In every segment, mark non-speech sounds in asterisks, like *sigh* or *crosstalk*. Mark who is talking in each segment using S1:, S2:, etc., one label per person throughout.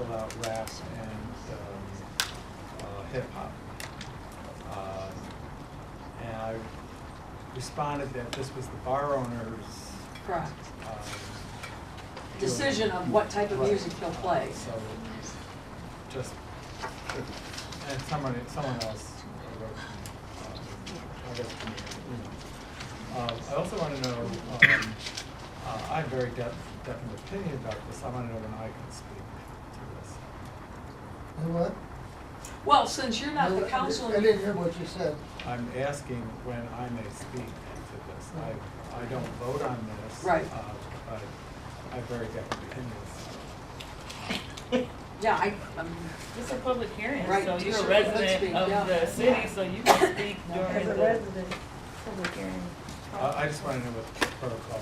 S1: um, hip hop. Um, And I responded that this was the bar owner's.
S2: Correct.
S1: um,
S2: Decision on what type of
S1: Right.
S2: music he'll play.
S1: So, just, and someone, someone else wrote, uh, I guess, from your email. Um, I also wanna know, um, uh, I have very def- definite opinion about this, I wanna know when I can speak to this.
S3: You know what?
S2: Well, since you're not the
S3: No, I-
S2: council,
S3: I didn't hear what you said.
S1: I'm asking when I may speak to this. I, I don't vote on this.
S2: Right.
S1: uh, But I have very different opinions.
S2: *laughs* yeah, I, um,
S4: This is a public hearing,
S2: Right,
S4: so
S2: you
S4: you're a
S2: should- let's be-
S4: resident
S2: yeah.
S4: of the
S2: Yeah.
S4: city, so
S2: *coughs*
S4: you can speak during
S5: As a
S4: the.
S5: resident, public hearing.
S1: I, I just want to know what the protocol is.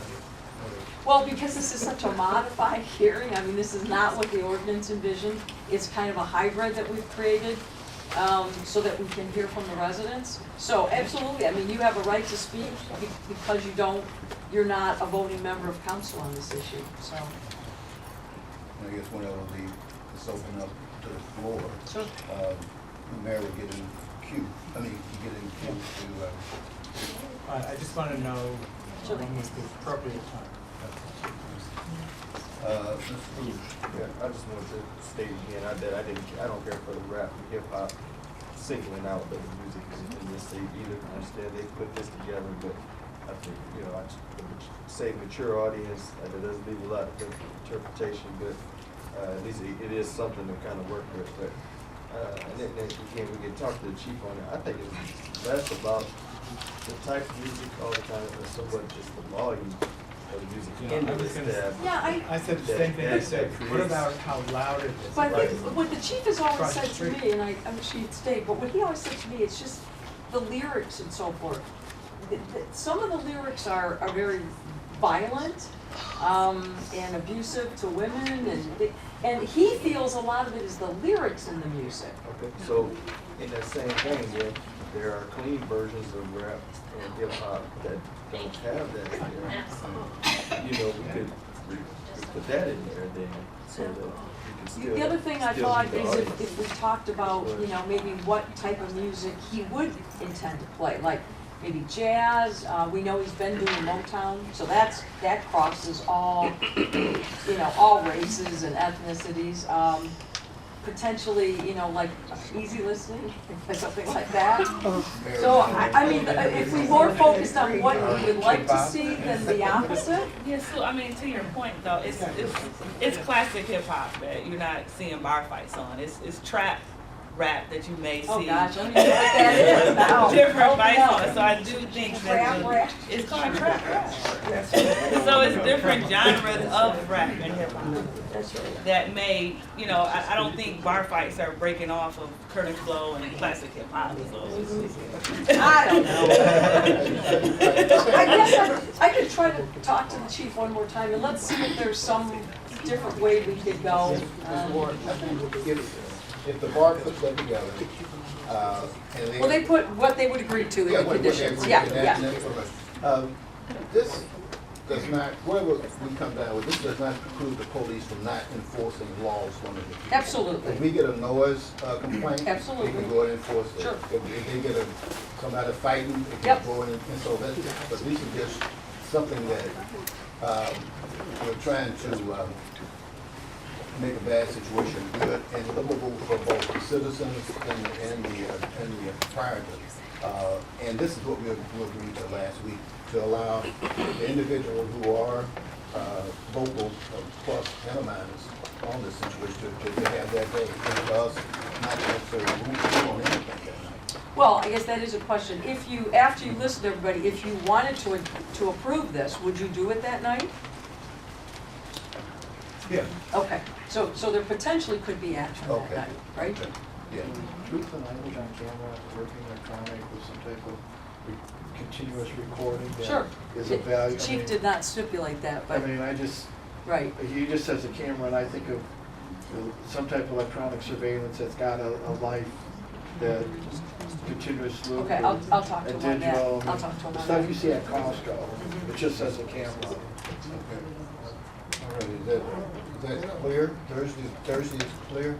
S2: well, because this is such a modified *laughs* hearing, I mean, this is not what the ordinance envisioned. It's kind of a hybrid that we've created, um, so that we can hear from the residents. So absolutely, I mean, you have a right to speak be- because you don't, you're not a voting member of council on this issue, so.
S6: I guess one will be, let's open up to the floor.
S2: Sure.
S6: Um, The mayor will get in queue, I mean, you get in queue to, uh,
S1: I, I just want to know
S2: Sure.
S1: when was the appropriate time.
S6: uh, Mr. Booth.
S7: Yeah, I just wanted to state again, I that I didn't, I don't care for the rap, and hip hop, singling out the music is in this state either. I understand they put this together, but I think, you know, I just would say mature audience, uh, that doesn't leave a lot of interpretation, but uh, at least it- it is something to kind of work with, but uh, and then, then again, we can talk to the chief on it. I think it's less about the type of music all the time, and somewhat just the volume of the music.
S1: Yeah, I
S7: into
S1: was
S7: this
S1: gonna
S7: tab.
S1: say-
S2: Yeah, I,
S1: I said the same thing I
S7: That-
S1: said.
S7: that
S1: What
S7: creates-
S1: about how loud it is?
S2: But I think
S7: Right.
S2: what the chief has always
S1: Across the
S2: said to
S1: street.
S2: me, and I, I'm sure he'd stay, but what he always said to me, it's just the lyrics and so forth. Th- th- Some of the lyrics are, are very violent, um, and abusive to women, and, th- and he feels a lot of it is the lyrics in the music.
S7: Okay, so in that same vein, then, there are clean versions of rap and hip hop that don't have that in there. You know, we could, we could put that in there then, so that you can still.
S2: The other thing I
S7: still
S2: thought
S7: meet the
S2: is if,
S7: audience.
S2: if we talked about, you know, maybe what type of music he would intend to play, like maybe jazz, uh, we know he's been doing Motown, so that's, that crosses all, you know, all races and ethnicities, um, potentially, you know, like easy listening, or something like that.
S6: mayor
S2: So,
S6: will-
S2: I, I mean, uh, if we more focused on what we would like to see than the opposite,
S4: Yeah, so I mean, to your point though, it's, it's, it's classic hip hop that you're not seeing bar fights on. It's, it's trap rap that you may see.
S2: oh gosh,
S4: *laughs*
S2: I don't even know what that is now.
S4: Different
S2: Open
S4: fights
S2: up.
S4: on, so I do think that
S2: Trap rap.
S4: the- it's called trap rap. So it's different genres of rap and hip hop.
S5: That's right.
S4: that may, you know, I, I don't think bar fights are breaking off of current flow and classic hip hop. So.
S2: I don't
S4: *laughs*
S2: know. I guess I, I could try to talk to the chief one more time and let's see if there's some different way we could go.
S6: Mr.
S2: Um,
S6: Warren, I think if, if the bar puts that together, uh, and they.
S2: Well, they put what they would agree to in
S6: Yeah,
S2: the
S6: what- what they
S2: conditions,
S6: agree
S2: yeah,
S6: to, that-
S2: yeah.
S6: that's what I- Um, this does not, whatever we come down with, this does not preclude the police from not enforcing laws on the people. If
S2: Absolutely,
S6: we get a noise uh, complaint,
S2: Absolutely.
S6: we can go and enforce it.
S2: Sure.
S6: If if they get a, somebody fighting, they
S2: Yep.
S6: can go in and and so that, but we should just, something that, um, we're trying to, um, make a bad situation good and livable for both the citizens and, and the, uh, and the proprietor. Uh, and this is what we, we agreed to last week, to allow the individual who are, uh, vocal uh, plus and minus on this situation to, to have that day. Because not necessarily rule on anything that night.
S2: well, I guess that is a question. If you, after you listen to everybody, if you wanted to, to approve this, would you do it that night?
S6: Yeah.
S2: Okay, so, so there potentially could be action that
S6: Okay.
S2: night, right?
S6: Yeah.
S8: Truth and language on camera, working electronic with some type of re- continuous recording
S2: Sure.
S8: that is of value. I
S2: Chief
S8: mean-
S2: did not stipulate that,
S8: I
S2: but,
S8: mean, I just,
S2: right.
S8: you just says a camera and I think of you know, some type of electronic surveillance that's got a, a life that continuous loop.
S2: Okay, I'll-
S8: and-
S2: I'll talk to
S8: and
S2: him on that.
S8: digital,
S2: I'll talk to him
S8: The
S2: on
S8: stuff
S2: that. Mm-hmm.
S8: you see at Costco, it just says a camera.
S6: Okay. All right, is that, is that clear? Thursday, Thursday is clear?